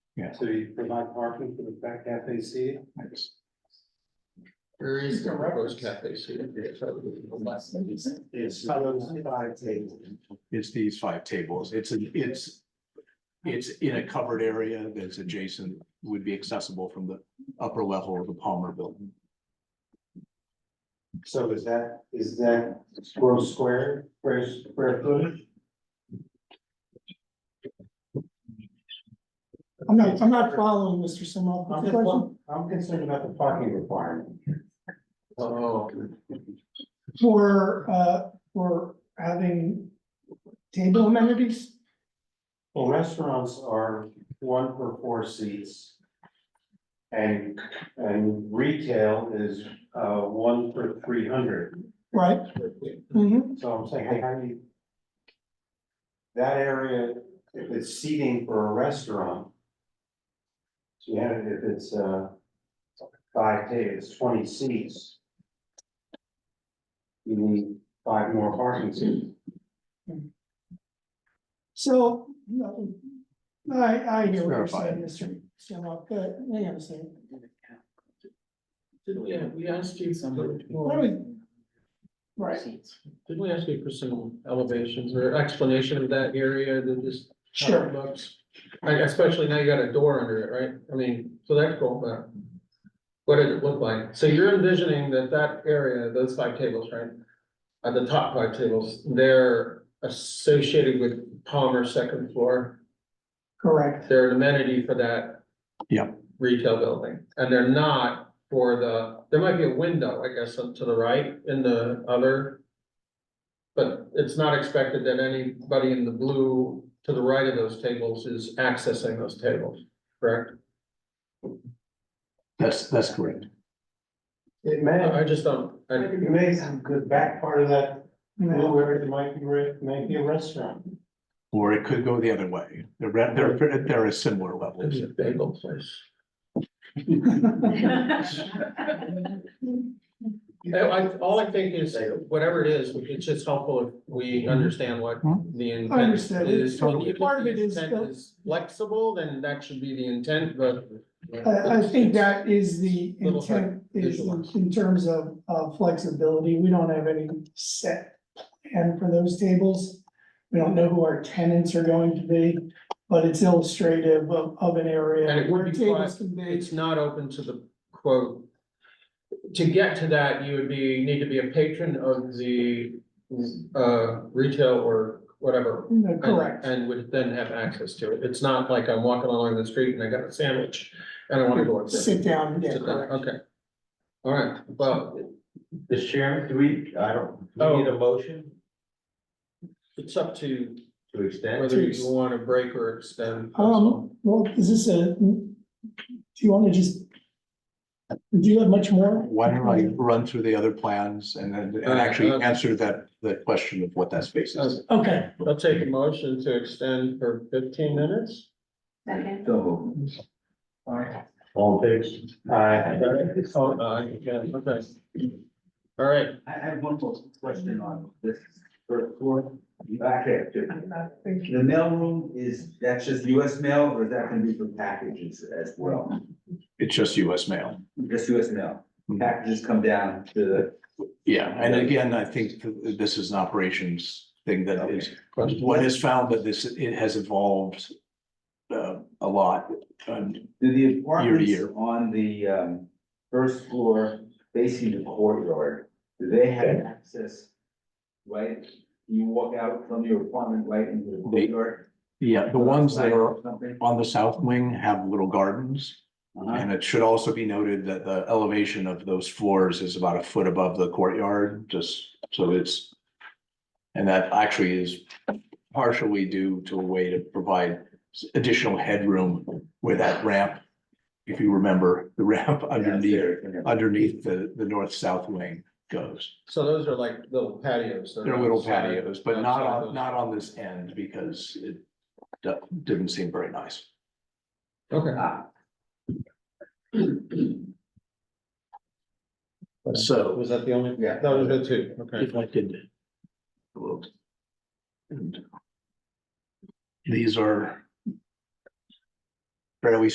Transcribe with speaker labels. Speaker 1: Yeah.
Speaker 2: So you provide parking for the back cafe seating?
Speaker 1: Thanks.
Speaker 3: Where is the
Speaker 4: Mr.
Speaker 3: proposed
Speaker 4: Roberts.
Speaker 3: cafe? seating?
Speaker 2: It's colored by table.
Speaker 1: It's these five tables. It's, an it's, it's in a covered area that's adjacent, would be accessible from the upper level of the Palmer Building.
Speaker 2: So is that, is that gross square, gross square footage?
Speaker 4: I'm not, I'm not following Mr. Simoff.
Speaker 2: I'm
Speaker 4: The
Speaker 2: just
Speaker 4: question
Speaker 2: one- I'm concerned about the parking requirement.
Speaker 3: Oh,
Speaker 4: For, uh, for having table amenities,
Speaker 2: Well, restaurants are one per four seats. And, and retail is, uh, one per three hundred,
Speaker 4: right? Mhm.
Speaker 2: so I'm saying, how do you? That area, if it's seating for a restaurant. So you have, it if it's, uh, five tables, twenty seats. You need five more parking seats.
Speaker 4: So, no, I, I hear what you're
Speaker 1: Verify.
Speaker 4: saying, Mr. Simoff, but, hang on a second.
Speaker 3: Didn't we, we asked you something?
Speaker 4: Why don't we- Right,
Speaker 3: Didn't we ask you for some elevations or explanation of that area that just? how it
Speaker 4: sure,
Speaker 3: looks? Like especially now you got a door under it, right? I mean, so that's cool, but. What did it look like? So you're envisioning that that area, those five tables, right? At the top five tables, they're associated with Palmer second floor.
Speaker 4: correct,
Speaker 3: They're an amenity for that.
Speaker 1: Yeah.
Speaker 3: Retail building, and they're not for the, there might be a window, I guess, up to the right in the other. But it's not expected that anybody in the blue to the right of those tables is accessing those tables, correct?
Speaker 1: That's, that's correct.
Speaker 2: It may,
Speaker 3: I I just don't, I,
Speaker 2: it may have good back part of that
Speaker 4: no,
Speaker 2: Well, where it might be, re- might be a restaurant.
Speaker 1: Or it could go the other way. They're, re- they're, they're a similar level.
Speaker 3: it's a bagel place. I, I- all I think is, whatever it is, it's just helpful if we understand what the
Speaker 4: Mhm. I
Speaker 3: intent
Speaker 4: understand.
Speaker 3: is.
Speaker 4: Totally.
Speaker 3: If
Speaker 4: Part of it
Speaker 3: the
Speaker 4: is
Speaker 3: intent
Speaker 4: the-
Speaker 3: Flexible, then that should be the intent, but.
Speaker 4: I, I think that is the
Speaker 3: Little hard
Speaker 4: intent, is in
Speaker 3: visualize.
Speaker 4: in terms of, of flexibility, we don't have any set plan for those tables. We don't know who our tenants are going to be, but it's illustrative of, of an
Speaker 3: And
Speaker 4: area
Speaker 3: it would
Speaker 4: where
Speaker 3: be
Speaker 4: tables can be,
Speaker 3: It's not open to the quote. To get to that, you would be, need to be a patron of the, uh, retail or whatever.
Speaker 4: no,
Speaker 3: and-
Speaker 4: correct.
Speaker 3: And would then have access to it. It's not like I'm walking along the street and I got a sandwich and I wanna go. upstairs.
Speaker 4: Sit down, yeah,
Speaker 3: Sit down,
Speaker 4: correct.
Speaker 3: Okay. All right, well,
Speaker 5: The chairman, do we, I don't, do
Speaker 3: Oh.
Speaker 5: we need a motion
Speaker 3: it's up to
Speaker 5: to extend?
Speaker 3: whether you want to break or extend.
Speaker 4: Um, well, is this a, do you want me to just? Do you have much more?
Speaker 1: Why don't I run through the other plans and then, and actually answer that, that question of what that space is?
Speaker 4: Okay,
Speaker 3: I'll take a motion to extend for fifteen minutes.
Speaker 6: Second.
Speaker 5: So. All fixed.
Speaker 2: Uh,
Speaker 3: Oh, uh, yeah, okay. All right,
Speaker 5: I have one more question on this first floor, back half too. The mailroom is, that's just US mail or is that gonna be for packages as well?
Speaker 1: It's just US mail.
Speaker 5: Just US mail, packages come down to the.
Speaker 1: Yeah, and again, I think th- this is an operations thing that is,
Speaker 3: question.
Speaker 1: what is found that this, it has evolved uh, a lot. Um,
Speaker 5: Do the
Speaker 1: year.
Speaker 5: apartments on the um first floor facing the courtyard, do they have access? Right, you walk out from your apartment right into the
Speaker 1: They-
Speaker 5: courtyard?
Speaker 1: Yeah, the ones that are
Speaker 5: Something?
Speaker 1: on the south wing have little gardens.
Speaker 5: Uh-huh.
Speaker 1: And it should also be noted that the elevation of those floors is about a foot above the courtyard, just so it's. And that actually is partially due to a way to provide s- additional headroom where that ramp. If you remember, the ramp underneath,
Speaker 5: Downstairs, yeah.
Speaker 1: underneath the, the north-south wing goes.
Speaker 3: So those are like little patios.
Speaker 1: They're little
Speaker 3: outside.
Speaker 1: patios, but not
Speaker 3: outside
Speaker 1: on,
Speaker 3: those.
Speaker 1: not on this end because it do- didn't seem very nice.
Speaker 3: Okay.
Speaker 5: Ah,
Speaker 1: So
Speaker 3: Was that the only?
Speaker 5: Yeah.
Speaker 3: That was the two, okay.
Speaker 1: if I could. look. And These are. fairly